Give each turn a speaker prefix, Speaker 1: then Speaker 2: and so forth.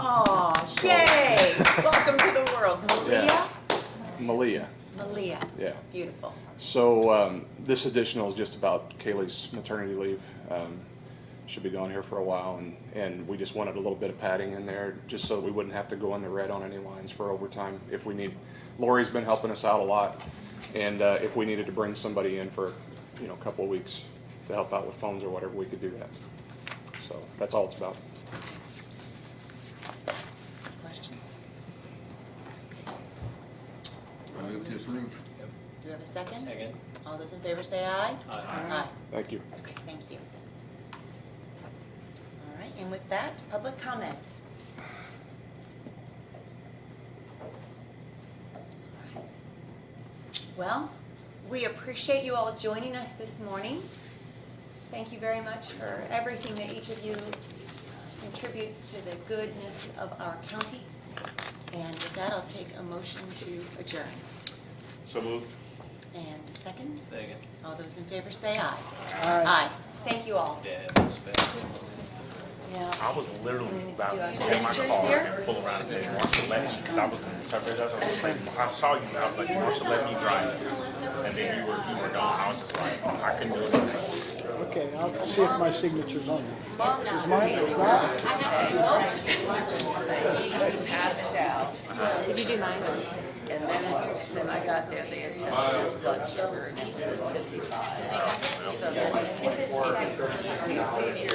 Speaker 1: Malia,
Speaker 2: Malia.
Speaker 1: yeah.
Speaker 2: Beautiful.
Speaker 1: So um, this additional is just about Kaylee's maternity leave. Um, She'll be gone here for a while, and, and we just wanted a little bit of padding in there, just so we wouldn't have to go in the red on any lines for overtime if we need. Lori's been helping us out a lot, and uh, if we needed to bring somebody in for, you know, a couple of weeks to help out with phones or whatever, we could do that. So that's all it's about.
Speaker 2: Questions?
Speaker 3: I move to approve.
Speaker 2: Do you have a second?
Speaker 4: Second.
Speaker 2: All those in favor say aye.
Speaker 4: Aye.
Speaker 1: Thank you.
Speaker 2: Okay, thank you. All right, and with that, public comment. All right. Well, we appreciate you all joining us this morning. Thank you very much for everything that each of you uh, contributes to the goodness of our county. And with that, I'll take a motion to adjourn.
Speaker 3: So moved.
Speaker 2: And a second,
Speaker 4: Second.
Speaker 2: all those in favor say aye. Aye. Thank you all.
Speaker 4: Yeah, that's best.
Speaker 2: Yeah.
Speaker 5: I was literally about
Speaker 2: Do I
Speaker 5: to
Speaker 2: have
Speaker 5: take my
Speaker 2: signatures
Speaker 5: car
Speaker 2: here?
Speaker 5: and pull around there and watch you let because I was in the suburbs. I was like, I saw you. I was like, why don't you let me drive? And then you were you were gone. I was just like, I couldn't do it.
Speaker 6: Okay, I'll see if my signature's on there.
Speaker 7: we passed out. Did you do mine? And then, then I got there, they had tested his blood sugar, and he